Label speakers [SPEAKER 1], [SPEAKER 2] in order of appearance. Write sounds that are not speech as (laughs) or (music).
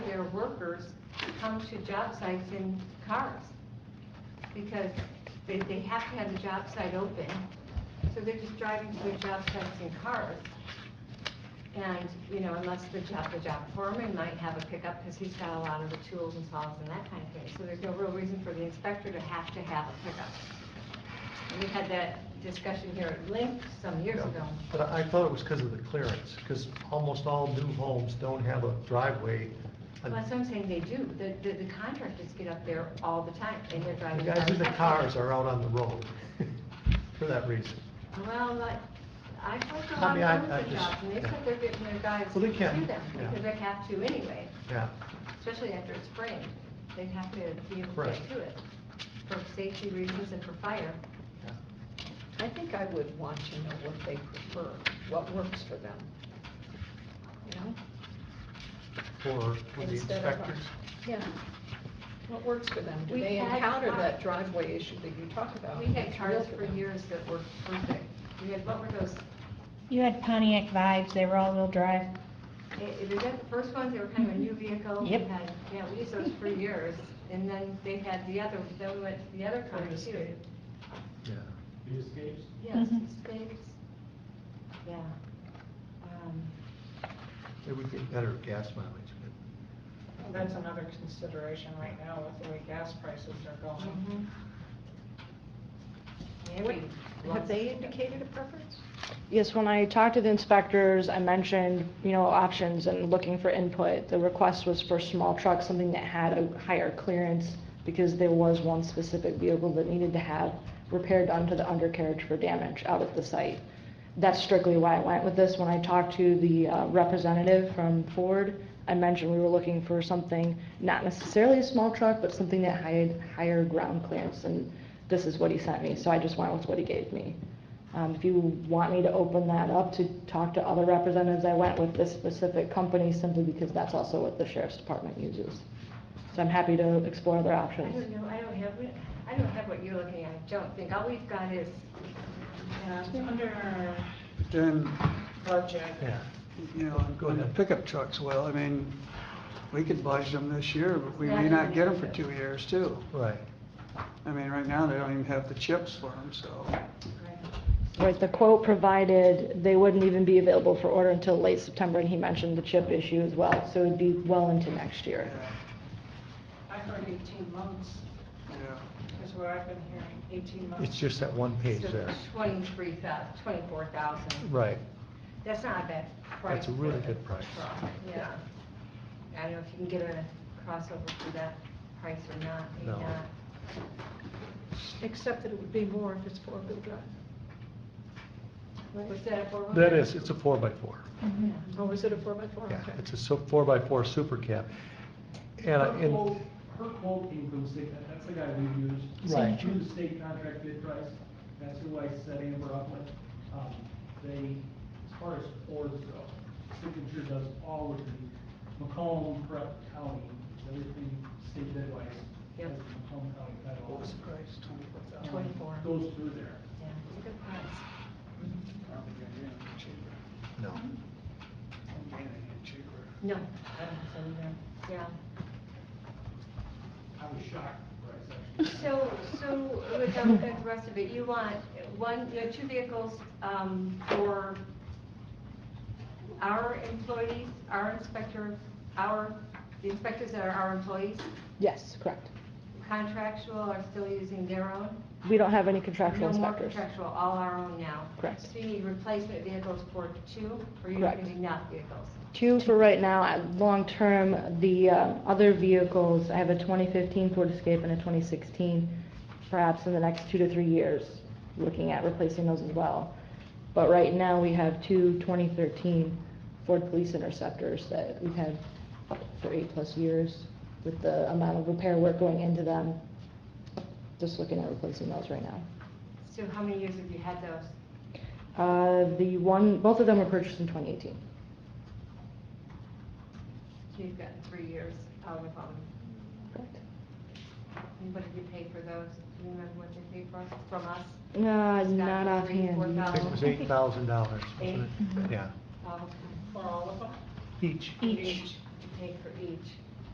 [SPEAKER 1] workers come to job sites in cars because they, they have to have the job site open. So they're just driving to their job sites in cars. And, you know, unless the job, the job foreman might have a pickup because he's got a lot of the tools and saws and that kind of thing. So there's no real reason for the inspector to have to have a pickup. And we had that discussion here at Link some years ago.
[SPEAKER 2] But I I thought it was because of the clearance, because almost all new homes don't have a driveway.
[SPEAKER 1] Well, that's what I'm saying, they do. The, the the contractors get up there all the time and they're
[SPEAKER 2] The
[SPEAKER 1] driving.
[SPEAKER 2] guys in the
[SPEAKER 1] cars.
[SPEAKER 2] cars are out on the road (laughs) for that reason.
[SPEAKER 1] Well, like, I talked to a
[SPEAKER 2] I
[SPEAKER 1] lot
[SPEAKER 2] mean, I-
[SPEAKER 1] of
[SPEAKER 2] I
[SPEAKER 1] them
[SPEAKER 2] just-
[SPEAKER 1] jobs and they said
[SPEAKER 2] yeah.
[SPEAKER 1] they're getting their guys to
[SPEAKER 2] Well, they
[SPEAKER 1] do
[SPEAKER 2] can,
[SPEAKER 1] them
[SPEAKER 2] yeah.
[SPEAKER 1] because they have to anyway,
[SPEAKER 2] Yeah,
[SPEAKER 1] especially after it's spring. They have to be able to
[SPEAKER 2] Correct.
[SPEAKER 1] get to it for safety reasons and for fire.
[SPEAKER 2] yeah.
[SPEAKER 3] I think I would want to know what they prefer, what works for them, you know?
[SPEAKER 2] For for the
[SPEAKER 3] Instead of a-
[SPEAKER 2] inspectors.
[SPEAKER 3] Yeah. What works for them? Do
[SPEAKER 1] We
[SPEAKER 3] they
[SPEAKER 1] had
[SPEAKER 3] encounter
[SPEAKER 1] cars-
[SPEAKER 3] that driveway issue that you talk about?
[SPEAKER 2] Uh,
[SPEAKER 1] We had
[SPEAKER 3] It's
[SPEAKER 1] cars
[SPEAKER 3] real
[SPEAKER 1] for
[SPEAKER 3] them.
[SPEAKER 1] years that were perfect. We had, what were those?
[SPEAKER 4] You had Pontiac vibes, they were all-wheel drive.
[SPEAKER 1] i- i- Was that the first ones? They were kind of a
[SPEAKER 3] Mm-hmm.
[SPEAKER 1] new vehicle. We
[SPEAKER 4] Yep.
[SPEAKER 1] had- Yeah, we used those for years. And then they had the other, then we went to the other kind too.
[SPEAKER 2] Yeah.
[SPEAKER 5] The escapes?
[SPEAKER 1] Yes,
[SPEAKER 3] Mm-hmm.
[SPEAKER 4] Mhm.
[SPEAKER 1] spades. Yeah. Um,
[SPEAKER 2] It would get better gas mileage, but
[SPEAKER 6] That's another consideration right now with the way gas prices are going.
[SPEAKER 3] Mm-hmm.
[SPEAKER 1] mhm. Maybe
[SPEAKER 3] Have
[SPEAKER 1] once-
[SPEAKER 3] they indicated a preference?
[SPEAKER 7] Yes, when I talked to the inspectors, I mentioned, you know, options and looking for input. The request was for small trucks, something that had a higher clearance, because there was one specific vehicle that needed to have repaired onto the undercarriage for damage out at the site. That's strictly why I went with this. When I talked to the uh, representative from Ford, I mentioned we were looking for something, not necessarily a small truck, but something that had higher ground clearance, and this is what he sent me, so I just went with what he gave me. Um, if you want me to open that up to talk to other representatives, I went with this specific company simply because that's also what the sheriff's department uses. So I'm happy to explore other
[SPEAKER 1] I don't
[SPEAKER 7] options.
[SPEAKER 1] know, I don't have, it- I don't have what you're looking at, I don't think. All we've got is,
[SPEAKER 6] And under
[SPEAKER 8] Then,
[SPEAKER 6] budget,
[SPEAKER 2] yeah.
[SPEAKER 8] you know,
[SPEAKER 2] Go
[SPEAKER 8] on the
[SPEAKER 2] ahead.
[SPEAKER 8] pickup trucks, well, I mean, we could budge them this year, but we
[SPEAKER 1] Yeah,
[SPEAKER 8] may not get them for
[SPEAKER 1] yeah.
[SPEAKER 8] two years too.
[SPEAKER 2] Right.
[SPEAKER 8] I mean, right now, they don't even have the chips for them, so.
[SPEAKER 7] Right, the quote provided, they wouldn't even be available for order until late September, and he mentioned the chip issue as well, so it'd be well into next year.
[SPEAKER 8] yeah,
[SPEAKER 6] I heard 18 months
[SPEAKER 8] yeah.
[SPEAKER 6] is what I've been hearing, 18 months.
[SPEAKER 2] It's just that one page
[SPEAKER 1] so
[SPEAKER 2] there.
[SPEAKER 1] twenty-three thousand, twenty-four thousand.
[SPEAKER 2] Right.
[SPEAKER 1] That's not a bad price.
[SPEAKER 2] That's a really
[SPEAKER 1] for the
[SPEAKER 2] good price.
[SPEAKER 1] truck, Yeah. I don't know if you can get a crossover for that price or not, maybe
[SPEAKER 2] No.
[SPEAKER 1] not.
[SPEAKER 3] Except that it would be more if it's four-wheel drive.
[SPEAKER 1] Was that a four-wheeler?
[SPEAKER 2] That is, it's a four by four.
[SPEAKER 1] Yeah.
[SPEAKER 3] Oh, is it a four-by-four?
[SPEAKER 2] Yeah,
[SPEAKER 3] Okay.
[SPEAKER 2] it's a so- four by four super cab. And, I-
[SPEAKER 5] Her
[SPEAKER 2] and,
[SPEAKER 5] quote- Her quote came from the state, that- that's the guy we used.
[SPEAKER 2] Right.
[SPEAKER 5] Through the state contract bid price, that's who I set Amber up with. Um, They, as far as Ford's go, Signature does all of the Macomb, Prep County, everything state bid wise.
[SPEAKER 1] Yep.
[SPEAKER 5] has the Macomb County federal.
[SPEAKER 8] What was the price, twenty-four thousand?
[SPEAKER 5] Um,
[SPEAKER 1] 24.
[SPEAKER 5] Goes through there.
[SPEAKER 1] Yeah, it's a good price.
[SPEAKER 8] Probably gonna get them cheaper.
[SPEAKER 2] no,
[SPEAKER 8] I'm gonna get cheaper.
[SPEAKER 1] No, I don't think so either. Yeah.
[SPEAKER 5] I was shocked when I said.
[SPEAKER 1] So, so with the with the rest of it, you want one, you know, two vehicles um, for our employees, our inspector, our, the inspectors that are our employees,
[SPEAKER 7] Yes, correct.
[SPEAKER 1] contractual are still using their own?
[SPEAKER 7] We don't have any contractual
[SPEAKER 1] No more
[SPEAKER 7] inspectors.
[SPEAKER 1] contractual, all our own now?
[SPEAKER 7] Correct.
[SPEAKER 1] So you need replacement vehicles for two, or you're
[SPEAKER 7] Correct.
[SPEAKER 1] using not vehicles?
[SPEAKER 7] Two for right now, Uh, long-term, the uh, other vehicles, I have a 2015 Ford Escape and a 2016, perhaps in the next two to three years, looking at replacing those as well. But right now, we have two 2013 Ford Police Interceptors that we've had for eight-plus years with the amount of repair work going into them, just looking at replacing those right now.
[SPEAKER 1] So how many years have you had those?
[SPEAKER 7] Uh, The one, both of them were purchased in 2018.
[SPEAKER 1] You've gotten three years out of them.
[SPEAKER 7] Correct.
[SPEAKER 1] And What did you pay for those? Do you remember what they paid for us, from us?
[SPEAKER 7] No,
[SPEAKER 1] It's got
[SPEAKER 7] Uh, not
[SPEAKER 1] three, four
[SPEAKER 7] offhand.
[SPEAKER 2] I think it was
[SPEAKER 1] thousand.
[SPEAKER 2] eight thousand dollars.
[SPEAKER 1] Eight?
[SPEAKER 2] Yeah,
[SPEAKER 1] Oh, okay.
[SPEAKER 6] For all of them?
[SPEAKER 2] each.
[SPEAKER 4] Each.
[SPEAKER 1] You paid for each.